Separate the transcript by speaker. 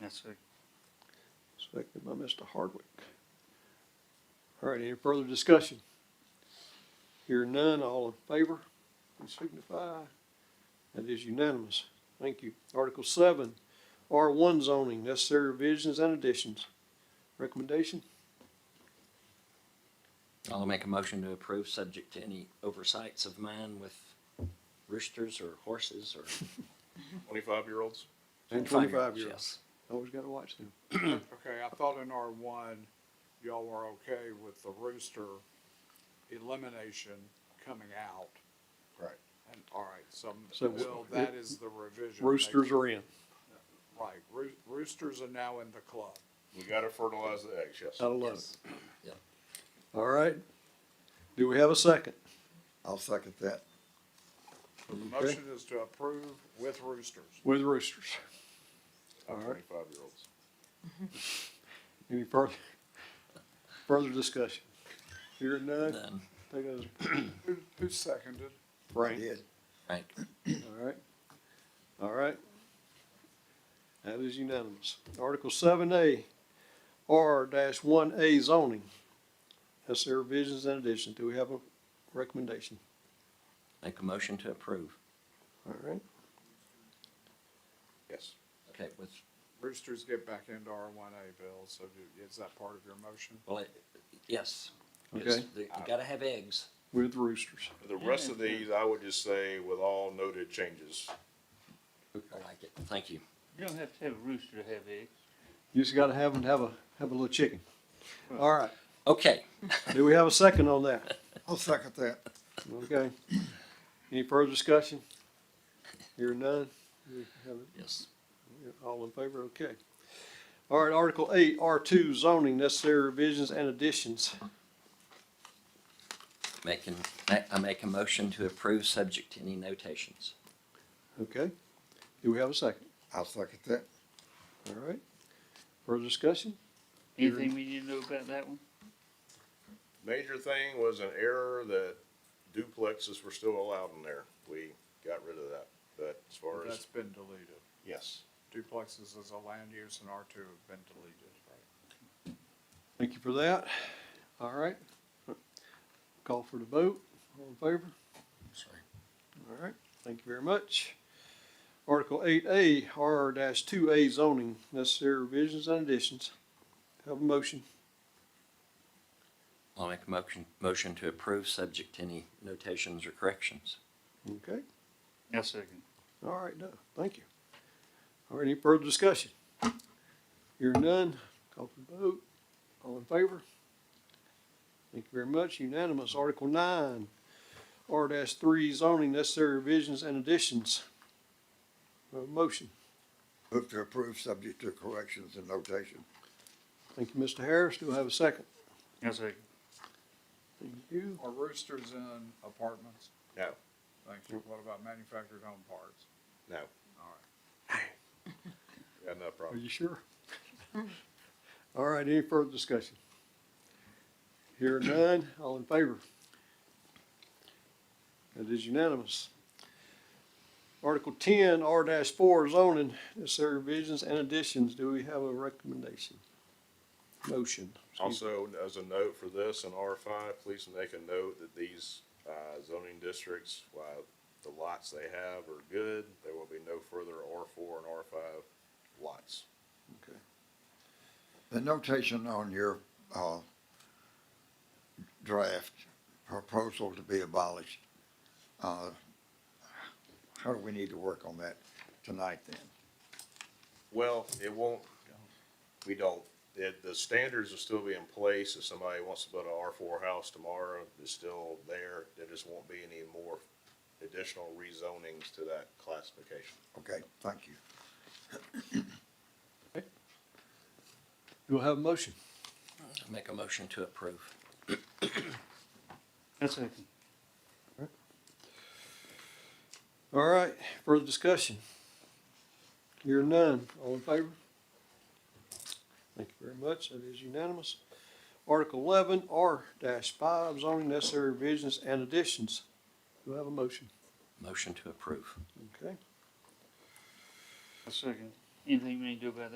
Speaker 1: Yes, sir.
Speaker 2: Seconded by Mr. Hardwick. All right, any further discussion? Hear none, all in favor, please signify. That is unanimous. Thank you. Article seven, R one zoning, necessary revisions and additions. Recommendation?
Speaker 3: I'll make a motion to approve, subject to any oversights of mine with roosters or horses or.
Speaker 4: Twenty-five-year-olds?
Speaker 2: And
Speaker 3: 25-year-olds,
Speaker 2: year olds.
Speaker 3: yes.
Speaker 2: Always gotta watch them.
Speaker 5: Okay, I thought in R one, y'all were okay with the rooster elimination coming out.
Speaker 4: Right.
Speaker 5: And, all right, so,
Speaker 2: So
Speaker 5: well,
Speaker 2: w-
Speaker 5: that is the revision.
Speaker 2: Roosters are in.
Speaker 5: Right, roo- roosters are now in the club.
Speaker 4: We gotta fertilize the eggs, yes.
Speaker 2: I love it.
Speaker 3: Yeah.
Speaker 2: All right. Do we have a second?
Speaker 6: I'll second that.
Speaker 5: The motion is to approve with roosters.
Speaker 2: With roosters.
Speaker 4: Not
Speaker 2: All right.
Speaker 4: Twenty-five-year-olds.
Speaker 2: Any further, further discussion? Hear none,
Speaker 3: Then,
Speaker 2: take those,
Speaker 5: Who, who seconded?
Speaker 6: I
Speaker 2: Frank.
Speaker 6: did.
Speaker 3: right,
Speaker 2: All right, all right. That is unanimous. Article seven A, R dash one A zoning. That's their revisions and additions. Do we have a recommendation?
Speaker 3: make a motion to approve.
Speaker 2: All right,
Speaker 4: Yes.
Speaker 3: Okay, with,
Speaker 5: Roosters get back into R one A, Bill, so do- is that part of your motion?
Speaker 3: well, it, yes.
Speaker 2: Okay.
Speaker 3: It's- You gotta have eggs.
Speaker 2: with roosters.
Speaker 4: For The rest of these, I would just say with all noted changes.
Speaker 3: I like it. Thank you.
Speaker 1: You don't have to have a rooster to have eggs.
Speaker 2: You just gotta have them have a, have a little chicken. All right,
Speaker 3: Okay,
Speaker 2: do we have a second on that?
Speaker 6: I'll second that.
Speaker 2: Okay. Any further discussion? Hear none? We have it.
Speaker 3: yes.
Speaker 2: All in favor? Okay. All right, Article eight, R two zoning, necessary revisions and additions.
Speaker 3: Making, I make a motion to approve, subject to any notations.
Speaker 2: Okay. Do we have a second?
Speaker 6: I'll second that.
Speaker 2: All right. Further discussion?
Speaker 1: Anything we need to know about that one?
Speaker 4: Major thing was an error that duplexes were still allowed in there. We got rid of that, but as far
Speaker 5: That's
Speaker 4: as,
Speaker 5: been deleted.
Speaker 4: yes.
Speaker 5: Duplexes as a land use and R two have been deleted.
Speaker 2: Thank you for that. All right. Call for the vote. All in favor?
Speaker 3: Sorry.
Speaker 2: All right. Thank you very much. Article eight A, R dash two A zoning, necessary revisions and additions. Have a motion.
Speaker 3: I'll make a motion, motion to approve, subject to any notations or corrections.
Speaker 2: Okay.
Speaker 1: I second.
Speaker 2: All right, no, thank you. All right, any further discussion? Hearing none, call for the vote. All in favor? Thank you very much, unanimous. Article nine, R dash three zoning necessary revisions and additions. Uh, motion.
Speaker 6: Move to approve, subject to corrections and notation.
Speaker 2: Thank you, Mr. Harris. Do I have a second?
Speaker 1: I second.
Speaker 2: Thank you.
Speaker 5: Are roosters in apartments?
Speaker 4: No.
Speaker 5: Thank you. What about manufactured home parks?
Speaker 4: No.
Speaker 5: All right.
Speaker 4: Got no
Speaker 2: Are
Speaker 4: problem.
Speaker 2: you sure? All right, any further discussion? Hearing none, all in favor? That is unanimous. Article ten, R dash four zoning, necessary revisions and additions. Do we have a recommendation? Motion.
Speaker 4: Also, as a note for this in R five, please make a note that these, uh, zoning districts, while the lots they have are good, there will be no further R four and R five lots.
Speaker 6: The notation on your, uh, draft proposal to be abolished, uh, how do we need to work on that tonight then?
Speaker 4: Well, it won't, we don't, it, the standards will still be in place, if somebody wants to build an R four house tomorrow, it's still there, there just won't be any more additional rezonings to that classification.
Speaker 6: Okay, thank you.
Speaker 2: Do I have a motion?
Speaker 3: I'll make a motion to approve.
Speaker 1: I second.
Speaker 2: All right, further discussion? Hearing none, all in favor? Thank you very much, that is unanimous. Article eleven, R dash five, zoning necessary revisions and additions. Do I have a motion?
Speaker 3: Motion to approve.
Speaker 2: Okay.
Speaker 1: I second. Anything we need to do about that?